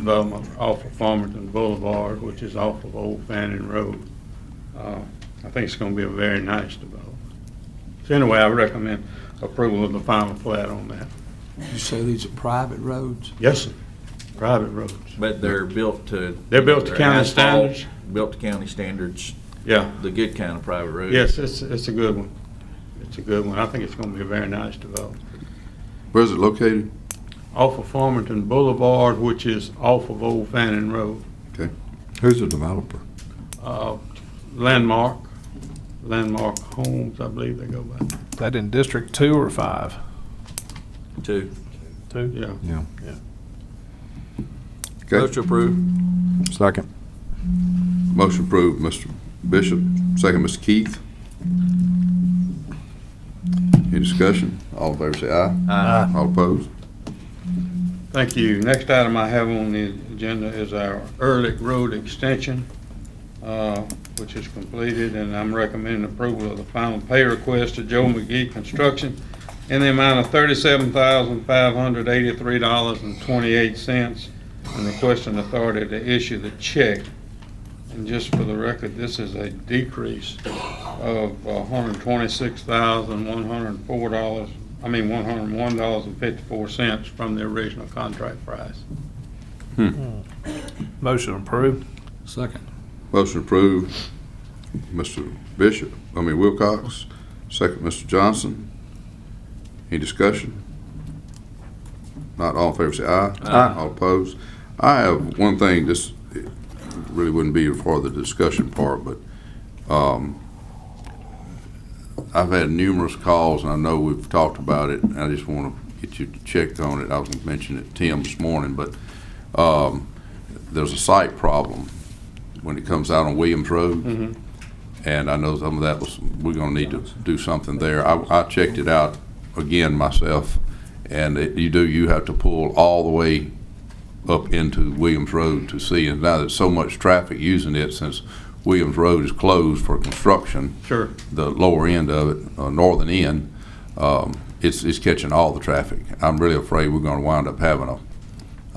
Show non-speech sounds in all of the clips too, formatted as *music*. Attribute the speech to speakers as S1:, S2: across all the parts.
S1: development off of Farmington Boulevard, which is off of Old Fanning Road. Uh, I think it's gonna be a very nice development. So anyway, I recommend approval of the final plat on that.
S2: You say these are private roads?
S1: Yes, sir. Private roads.
S3: But they're built to.
S1: They're built to county
S3: asphalt,
S1: standards.
S3: Built to county standards,
S1: Yeah,
S3: the good kind of private road.
S1: yes, it's, it's a good one. It's a good one. I think it's gonna be a very nice development.
S4: Where's it located?
S1: Off of Farmington Boulevard, which is off of Old Fanning Road.
S4: Who's the developer?
S1: Uh, Landmark, Landmark Homes, I believe they go by.
S5: Is that in District Two or Five?
S3: Two.
S5: Two.
S1: Yeah.
S4: Yeah.
S5: Yeah.
S3: Motion
S4: Okay,
S3: approved.
S5: Second.
S4: motion approved, Mr. Bishop, second, Mr. Keith. Any discussion? All in favor say aye.
S3: Aye.
S4: All opposed?
S1: Thank you. Next item I have on the agenda is our Ehrlich Road Extension, uh, which is completed, and I'm recommending approval of the final pay request to Joe McGee Construction in the amount of thirty-seven thousand, five hundred eighty-three dollars and twenty-eight cents, and requesting authority to issue the check. And just for the record, this is a decrease of uh, hundred twenty-six thousand, one hundred four dollars I mean, one hundred and one dollars and fifty-four cents from the original contract price.
S5: Motion approved.
S2: Second.
S4: Motion approved, Mr. Bishop, I mean Wilcox, second, Mr. Johnson. Any discussion? Not all in favor, say aye.
S3: Aye.
S4: All opposed? I have one thing, this it really wouldn't be for the discussion part, but um, I've had numerous calls, and I know we've talked about it, and I just want to get you checked on it. I was going to mention it to Tim this morning, but um, there's a site problem when it comes out on Williams Road.
S1: Mhm.
S4: And I know some of that was, we're gonna need to do something there. I, I checked it out again myself, and it, you do, you have to pull all the way up into Williams Road to see, and now there's so much traffic using it since Williams Road is closed for construction,
S1: Sure.
S4: the lower end of it, uh, northern end, um, it's, it's catching all the traffic. I'm really afraid we're gonna wind up having a,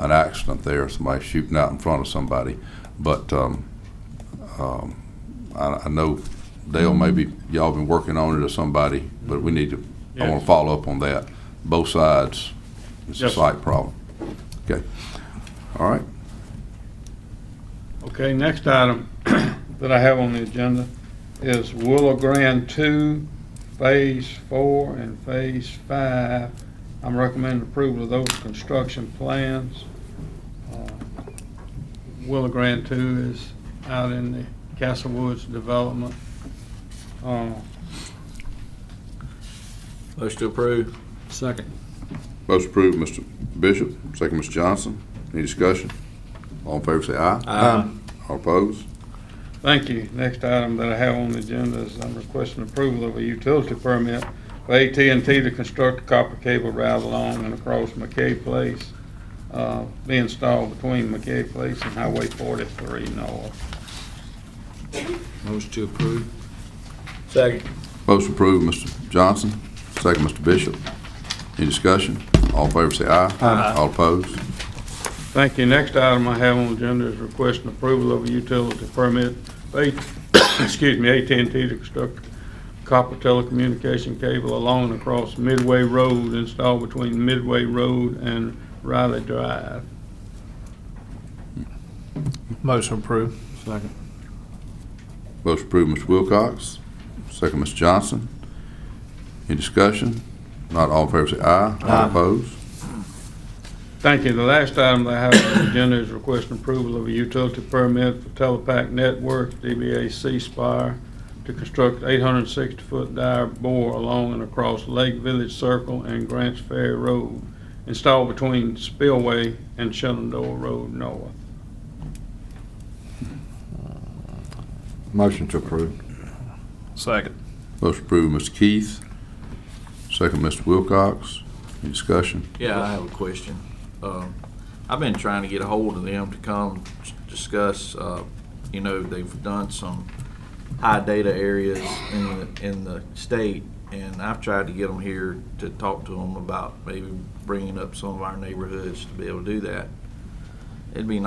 S4: an accident there, somebody shooting out in front of somebody. But, um, um, I, I know Dale, maybe y'all been working on it or somebody, but we need to, I wanna
S1: Yes.
S4: follow up on that, both sides. It's a
S1: Yes, sir.
S4: site problem. Okay. All right,
S1: Okay, next item *coughs* that I have on the agenda is Willow Grand Two, Phase Four and Phase Five. I'm recommending approval of those construction plans. Uh, Willow Grand Two is out in the Castle Woods development. Uh,
S3: Motion to approve.
S2: Second.
S4: motion approved, Mr. Bishop, second, Mr. Johnson. Any discussion? All in favor, say aye.
S3: Aye.
S4: All opposed?
S1: Thank you. Next item that I have on the agenda is I'm requesting approval of a utility permit for at and T to construct a copper cable route along and across McKay Place, uh, be installed between McKay Place and Highway 43 North.
S3: Motion to approve. Second.
S4: Motion approved, Mr. Johnson, second, Mr. Bishop. Any discussion? All in favor, say aye.
S3: Aye.
S4: All opposed?
S1: Thank you. Next item I have on the agenda is requesting approval of a utility permit for, A- *coughs* excuse me, at and T to construct copper telecommunication cable along and across Midway Road, installed between Midway Road and Riley Drive.
S5: Motion approved.
S2: Second.
S4: Motion approved, Mr. Wilcox, second, Mr. Johnson. Any discussion? Not all in favor, say aye. All opposed?
S1: Thank you. The last item that I have on the agenda is requesting approval of a utility permit for Telepac Network, DBA C Spire, to construct 860-foot dire bore along and across Lake Village Circle and Grants Ferry Road, installed between Spillway and Shenandoah Road North.
S4: Motion to approve.
S5: Second.
S4: Motion approved, Mr. Keith, second, Mr. Wilcox. Any discussion?
S3: Yeah, I have a question. Um, I've been trying to get a hold of them to come s- discuss, uh, you know, they've done some high data areas in the, in the state, and I've tried to get them here to talk to them about maybe bringing up some of our neighborhoods to be able to do that. it'd be